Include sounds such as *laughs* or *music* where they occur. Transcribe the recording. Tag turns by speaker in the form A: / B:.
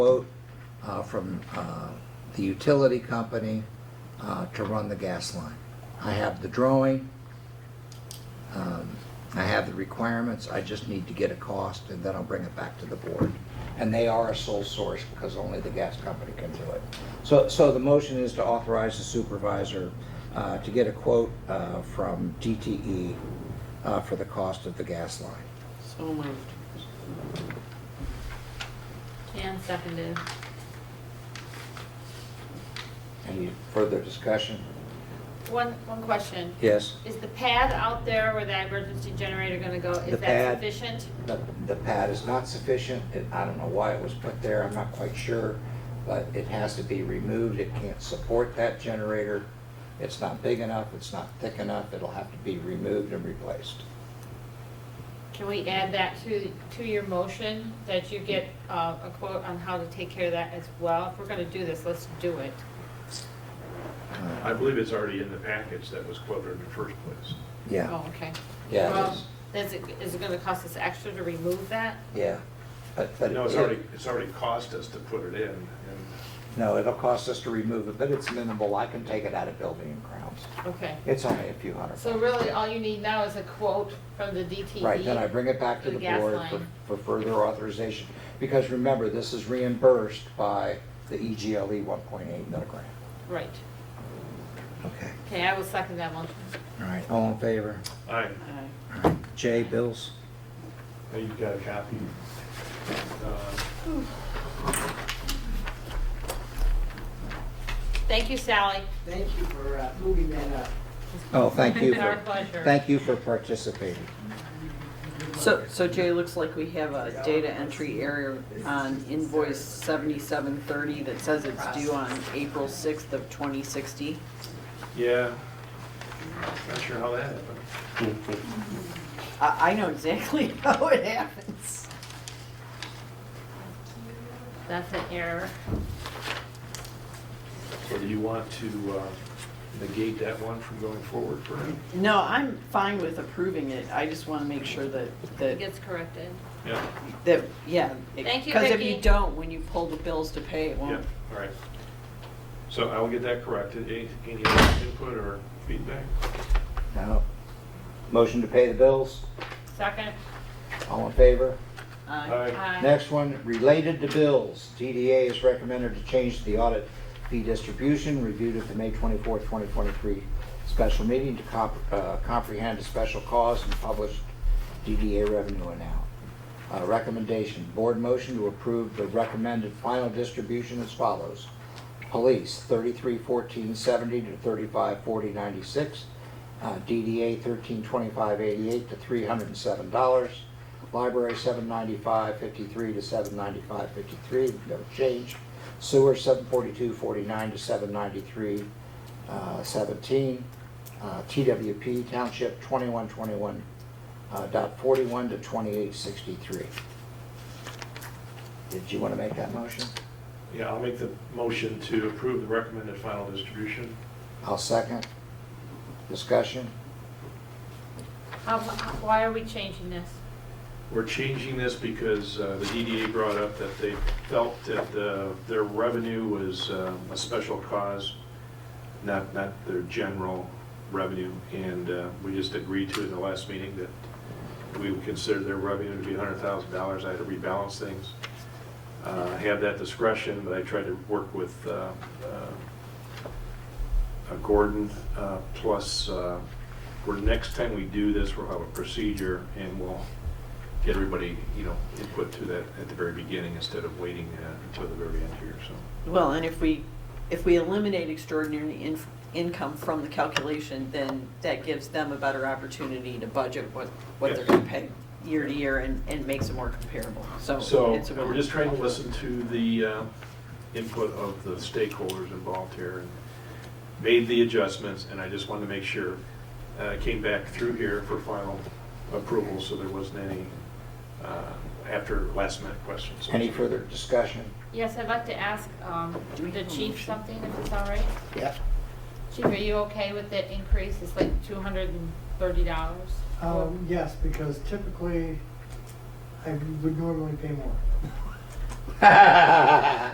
A: quote uh, from uh, the utility company uh, to run the gas line. I have the drawing, um, I have the requirements, I just need to get a cost, and then I'll bring it back to the board. And they are a sole source, because only the gas company can do it. So, so the motion is to authorize the supervisor uh, to get a quote uh, from DTE uh, for the cost of the gas line.
B: So moved.
C: Jan seconded.
A: Any further discussion?
C: One, one question.
A: Yes?
C: Is the pad out there where that emergency generator gonna go,
A: The pad.
C: is that sufficient?
A: The, the pad is not sufficient, It- I don't know why it was put there, I'm not quite sure, but it has to be removed, it can't support that generator. It's not big enough, it's not thick enough, it'll have to be removed and replaced.
C: Can we add that to, to your motion, that you get uh, a quote on how to take care of that as well? If we're gonna do this, let's do it.
A: Uh,
D: I believe it's already in the package that was quoted in the first place.
A: Yeah,
C: Oh, okay.
A: yeah, it
C: Well,
A: is,
C: Is it, is it gonna cost us extra to remove that?
A: yeah. But- but
D: No, it's
A: it-
D: already, it's already cost us to put it in, and
A: No, it'll cost us to remove it, but it's minimal, I can take it out of building and grounds.
C: Okay.
A: It's only a few hundred.
C: So really, all you need now is a quote from the DTE.
A: Right, then I bring it back to
C: E, The
A: the
C: gas
A: board for-
C: line.
A: for further authorization. Because remember, this is reimbursed by the E EGLE 1.8 milligram.
C: Right.
A: Okay.
C: Okay, I will second that motion.
A: All right, all in favor?
D: I,
A: All right. Jay, bills?
D: now you've got a copy. Uh,
C: Thank you, Sally.
B: Thank you for uh, moving that up.
A: Oh,
C: *laughs*
A: thank you.
C: Our
A: for-
C: pleasure.
A: Thank you for participating.
E: So, so Jay, looks like we have a data entry error on invoice seventy-seven thirty that says it's due on April sixth of twenty sixty.
D: Yeah, not sure how that happened.
E: I, I know exactly *laughs* how it happens.
C: That's an error.
D: So do you want to uh, negate that one from going forward for him?
E: No, I'm fine with approving it, I just wanna make sure that,
C: It
E: that,
C: gets corrected.
D: Yeah,
E: that, yeah. it-
C: Thank you,
E: Cause if you
C: Vicki.
E: don't, when you pull the bills to pay, it
D: yeah,
E: won't.
D: all right. So I will get that corrected. Any any other input or feedback?
A: Now, motion to pay the bills?
C: Second?
A: All in favor?
E: Aye.
C: Aye.
A: Next one, related to bills. DDA is recommended to change the audit fee distribution reviewed at the May 24, 2023 special meeting to comp- uh, comprehend a special cause and published DDA revenue amount. Uh, Recommendation, board motion to approve the recommended final distribution as follows. Police, 331470 to 354096. Uh, DDA thirteen twenty-five eighty-eight to three hundred and seven dollars. Library seven ninety-five fifty-three to seven ninety-five fifty-three, no change. Sewer seven forty-two forty-nine to seven ninety-three seventeen. Uh, TWP Township twenty-one twenty-one uh, dot forty-one to twenty-eight sixty-three. Did you want to make that motion?
D: Yeah, I'll make the motion to approve the recommended final distribution.
A: I'll second. Discussion?
C: How, why are we changing this?
D: We're changing this because uh, the DDA brought up that they felt that uh, their revenue was um, a special cause, not, not their general revenue. And uh, we just agreed to in the last meeting that we would consider their revenue to be $100,000. I had to rebalance things. Uh, I have that discretion, but I tried to work with uh, uh, uh, Gordon, uh, plus, uh, for next time we do this, we'll have a procedure and we'll get everybody, you know, input to that at the very beginning instead of waiting uh, until the very end here, so.
E: Well, and if we, if we eliminate extraordinary in, income from the calculation, then that gives them a better opportunity to budget what, what they're gonna pay year to year and, and makes it more comparable, so.
D: So,
E: it's a-
D: and we're just trying to listen to the uh, input of the stakeholders involved here and made the adjustments, and I just wanted to make sure, uh, it came back through here for final approval, so there wasn't any uh, after last minute questions.
A: Any further discussion?
C: Yes, I'd like to ask, um,
E: Do we
C: the
E: have a
C: chief
E: motion?
C: something, if it's all right?
A: *laughs* Yeah.
C: Chief, are you okay with the increase? It's like two hundred and thirty dollars.
F: Um, yes, because typically, I would normally pay more.